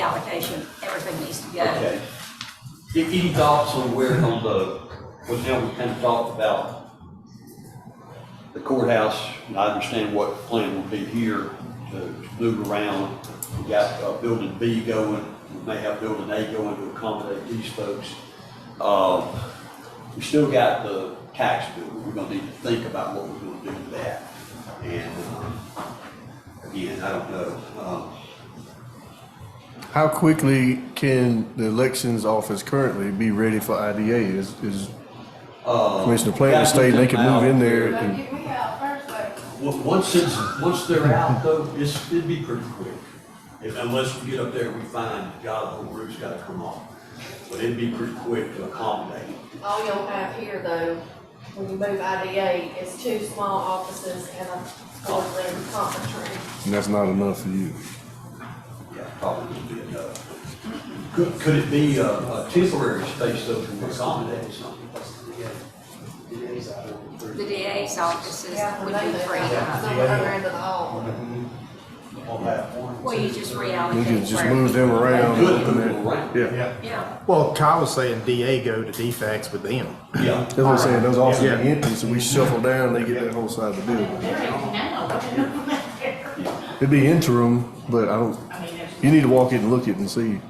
allocation, everything needs to go. Okay. If Any thoughts on where on the, well, now we kind of talked about the courthouse, and I understand what the plan would be here to move around. We got uh, building B going, we may have building A going to accommodate these folks. Uh, We still got the tax bill, we're gonna need to think about what we're gonna do with that. And, um, again, I don't know, um, How quickly can the elections office currently be ready for IDA? Is, is uh. Commissioner Plant stating they can move in there But and get me out first, but Well, Once it's, once they're out though, it's, it'd be pretty quick. If, unless we get up there, we find, God, the whole roof's gotta come off. But it'd be pretty quick to accommodate. all you'll have here though, when you move IDA, is two small offices and a boardroom conference room. and that's not enough for you. Yeah, probably would be enough. Could, could it be a, a temporary space though to accommodate something? The DA's offices Yeah, would they be live free out up. the other end of the hall. On that one. Well, you just You reallocate. could just where- move them around. Good, move them around. Yeah, Yeah, Well, Kyle was saying DA go to DFAX with them. Yeah. that's what I'm saying, those offices Yeah. are empty, so we shuffle down, they get that whole side of the building. They're in now, It'd be interim, but I don't, I mean, there's. you need to walk in and look it and see.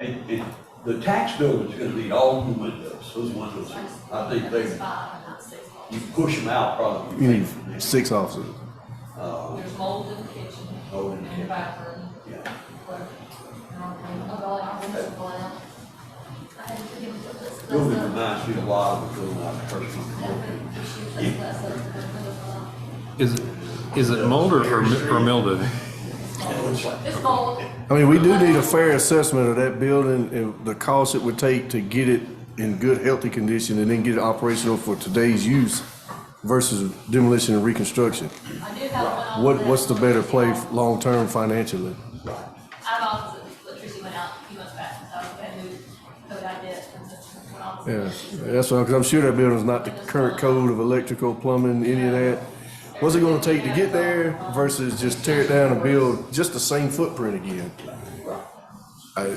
And, and the tax building's gonna need all new windows, those windows, I think they, Five, not six halls. you push them out probably. You need six officers. Uh, There's mold in the kitchen, Mold in the and kitchen. the bathroom, yeah. whatever. Building reminds me a lot of the building I personally grew Is it, is it Mulder or, mi- or Mildew? up in. It's like, It's mold. I mean, we do need a fair assessment of that building and the cost it would take to get it in good, healthy condition and then get it operational for today's use versus demolition and reconstruction. I do have one. What, what's the better play f- long-term financially? I have office electricity went out a few months back, so I had to code I did from the, when I was. Yeah, that's why, because I'm sure that building's not the current code of electrical, plumbing, any of that. What's it gonna take to get there versus just tear it down and build just the same footprint again? I,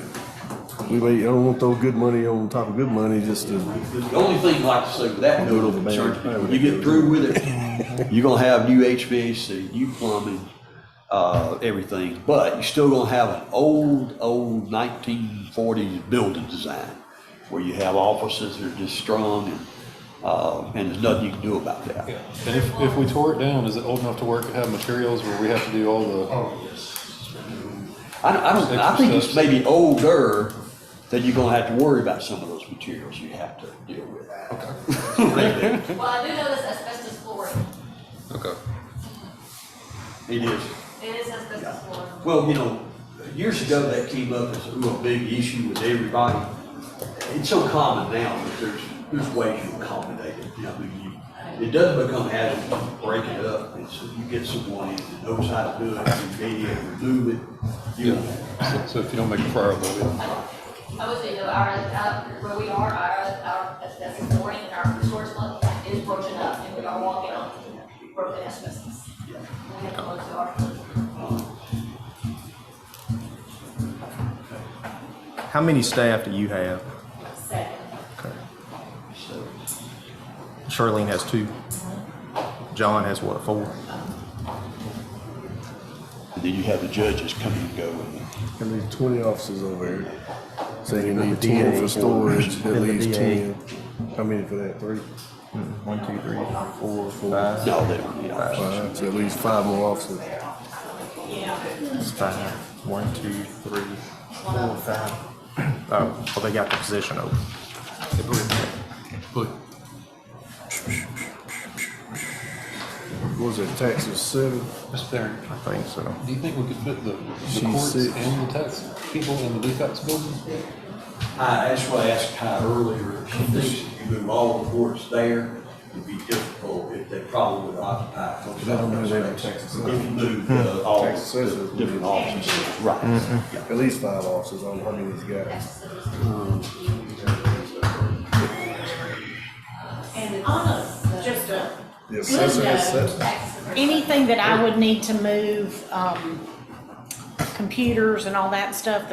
we may, I don't want to throw good money on top of good money just to, The only thing I'd like to say with that note of Man, concern, I would- you get through with it, you're gonna have new HVAC, new plumbing, uh, everything, but you're still gonna have an old, old nineteen forties building design where you have offices that are just strong and, uh, and there's nothing you can do about that. And if, if we tore it down, is it old enough to work, have materials where we have to do all the? I don't, I don't, I think it's Extra maybe older that you're gonna have to worry about some of those materials you have to deal with. Okay. Well, I do know this asbestos flooring, Okay. It is, it is asbestos flooring. well, you know, years ago that came up as a real big issue with everybody. It's so common now that there's, there's ways you accommodate it, you know, you, it doesn't become hazardous, you break it up. It's, you get someone in that knows how to do it, you mediate, remove it, you know. Yeah, so if you don't make a fire, we'll I would say, though, our, our- where we are, our, our asbestos flooring and our resource fund is broken up, and we are walking on broken asbestos. We have to look to our. How many staff do you have? Second. So, Charlene has two. John has what, four? And then you have the judges come and go and at least twenty officers over here. Saying you need ten for storage, at And the least DA. ten. How many for that, three? Hmm, One, two, three, four, five. No, they don't need officers. Five, so at least five more officers. It's five. One, two, three, four, five. Oh, well, they got the position open. But What was it, taxes seven? Mr. Darren, I think so. do you think we could fit the, the She's courts sick. and the tax people in the defects building? I, that's why I asked Ty earlier, if she thinks if you move all the courts there, it'd be difficult, if they probably would occupy. most of They don't know they those have spaces. Texas. If you move uh, all the Texas is- different offices, right. Yeah. At least five officers on how many he's got. And just a The assessor is set. on anything that I would need to move, um, computers and all that stuff, the